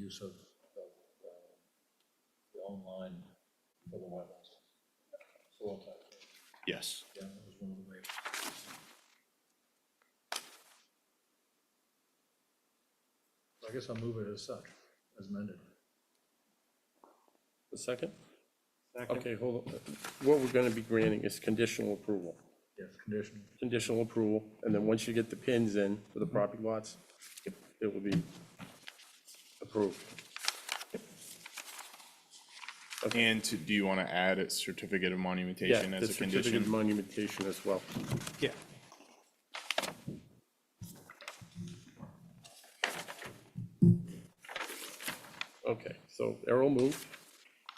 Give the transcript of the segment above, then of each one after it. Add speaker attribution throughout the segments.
Speaker 1: use of, of um, the online for the wetlands. Soil type,
Speaker 2: Yes.
Speaker 1: yeah, that was one of the waivers. I guess I'll move it as such, as amended.
Speaker 3: A second? Okay, hold on. What we're going to be granting is conditional approval.
Speaker 1: Yes, conditional.
Speaker 3: Conditional approval, and then once you get the pins in for
Speaker 2: Mm-hmm.
Speaker 3: the property lots, it will be approved.
Speaker 2: And to- do you want to add a certificate of
Speaker 3: Yeah,
Speaker 2: monumentation
Speaker 3: the
Speaker 2: as a
Speaker 3: certificate of
Speaker 2: condition?
Speaker 3: monumentation as well.
Speaker 2: Yeah.
Speaker 3: Okay, so Errol moved,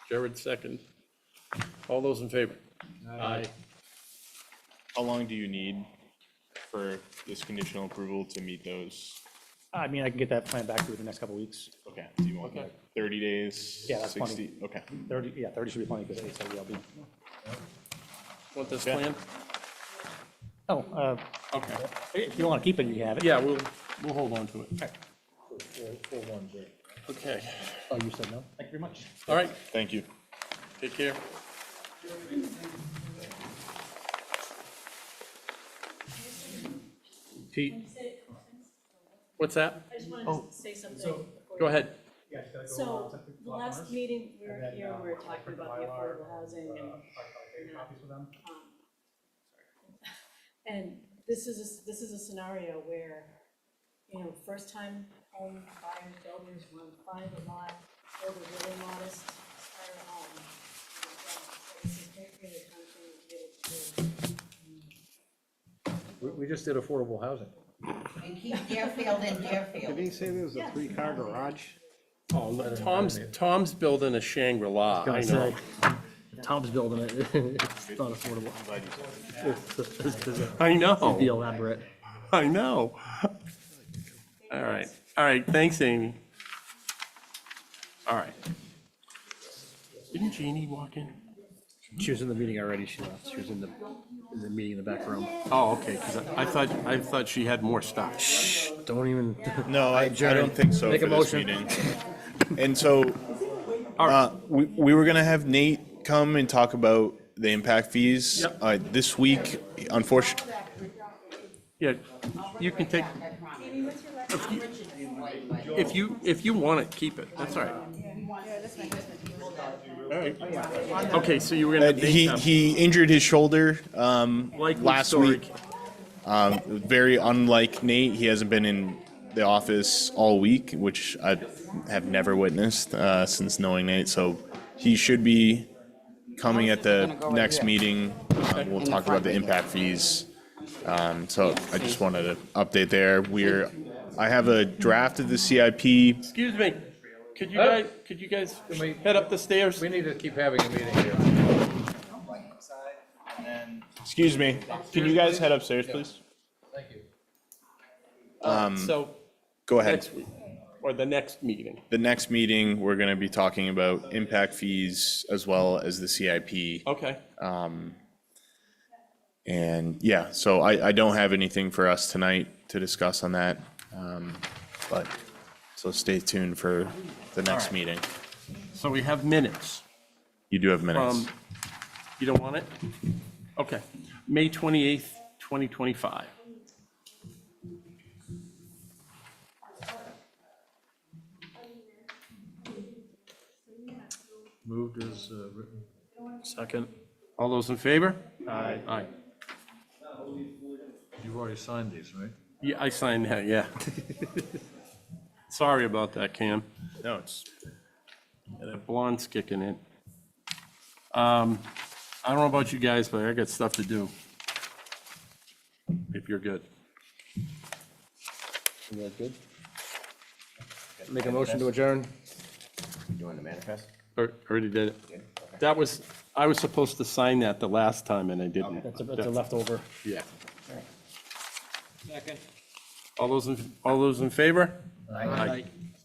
Speaker 3: Jared second. All those in favor? Aye.
Speaker 2: How long do you need for this conditional approval to meet those?
Speaker 4: I mean, I can get that plan back to you in the next couple of weeks.
Speaker 2: Okay, do you want
Speaker 3: Okay.
Speaker 2: like 30 days?
Speaker 4: Yeah, that's plenty.
Speaker 2: 60? Okay.
Speaker 4: Thirty, yeah, thirty should be plenty, because it's will be.
Speaker 3: Want this plan?
Speaker 4: Oh, uh,
Speaker 2: Okay.
Speaker 4: if you want to keep it, you can have it.
Speaker 3: Yeah, we'll, we'll hold on to it.
Speaker 1: Four- four- four one zero.
Speaker 3: Okay,
Speaker 4: Oh, you said no? Thank you very much.
Speaker 3: all right,
Speaker 2: Thank you.
Speaker 3: take care. Pete, what's that?
Speaker 5: I just wanted to say something. before
Speaker 3: Oh, Go
Speaker 5: you-
Speaker 3: ahead.
Speaker 5: So, the last meeting we were here, we were talking about the affordable housing and, um, and this is, a s- this is a scenario where, you know, first time home buyers, builders want to find a lot, build a really modest, um, start a home. So This is definitely uh, the kind of thing we'd be able to do.
Speaker 1: We, we just did affordable housing.
Speaker 6: And keep Deerfield in Deerfield.
Speaker 7: Did he say there was a three-car garage?
Speaker 8: Oh,
Speaker 1: Better than
Speaker 3: Tom's,
Speaker 1: that.
Speaker 3: Tom's building a Shangri-La, I know.
Speaker 4: Tom's building it. It's not affordable.
Speaker 3: I
Speaker 4: Be
Speaker 3: know,
Speaker 4: elaborate.
Speaker 3: I know. All right, all right, thanks, Amy. All right. Didn't Jeannie walk in?
Speaker 8: She was in the meeting already, she left, she was in the, in the meeting in the back room.
Speaker 3: Oh, okay, because I thought, I thought she had more stuff.
Speaker 8: Don't even,
Speaker 2: No, I, I don't think so
Speaker 8: Make a
Speaker 2: for this
Speaker 8: motion.
Speaker 2: meeting. And so, uh, we, we were gonna have Nate come and talk about the impact fees.
Speaker 3: Yep.
Speaker 2: Uh, this week, unfortunately,
Speaker 3: Yeah, you can take,
Speaker 6: Amy, what's your last? I'm Richard from Whitewood.
Speaker 3: if you, if you want it, keep it, that's all right. Okay, so you were gonna.
Speaker 2: uh, he, he injured his shoulder, um,
Speaker 3: Likely
Speaker 2: last
Speaker 3: story.
Speaker 2: week. Um, very unlike Nate, he hasn't been in the office all week, which I have never witnessed, uh, since knowing Nate, so he should be coming at the
Speaker 6: Gonna go right
Speaker 2: next
Speaker 6: here.
Speaker 2: meeting. Uh, We'll
Speaker 6: In the
Speaker 2: talk about
Speaker 6: front.
Speaker 2: the impact fees. Um, so I just wanted to update there. We're, I have a draft of the CIP.
Speaker 3: Excuse me, could you guys, could you guys
Speaker 8: we-
Speaker 3: head up the stairs?
Speaker 8: we need to keep having a meeting here.
Speaker 2: Excuse me, can you guys head upstairs, please? Um,
Speaker 8: Thank you.
Speaker 3: So,
Speaker 2: Go ahead.
Speaker 3: next week, or the next meeting.
Speaker 2: The next meeting, we're gonna be talking about impact fees as well as the CIP.
Speaker 3: Okay,
Speaker 2: And yeah, so I, I don't have anything for us tonight to discuss on that. Um, But, so stay tuned for the next meeting.
Speaker 3: so we have minutes.
Speaker 2: You do have minutes.
Speaker 3: Um, You don't want it? Okay, May 28th, 2025.
Speaker 1: Moved as uh, written.
Speaker 3: Second. All those in favor? Aye. Aye.
Speaker 1: You've already signed these, right?
Speaker 3: Yeah, I signed that, yeah. Sorry about that, Cam.
Speaker 2: No, it's.
Speaker 3: Yeah, That blonde's kicking in. Um, I don't know about you guys, but I got stuff to do. If you're good.
Speaker 8: good? Make a motion to adjourn?
Speaker 7: Doing the manifest?
Speaker 3: Al- Already did it. That was, I was supposed to sign that the last time and I
Speaker 8: Oh,
Speaker 3: didn't.
Speaker 4: That's a, that's a leftover.
Speaker 3: Yeah. Second. All those, in all those in favor? Aye.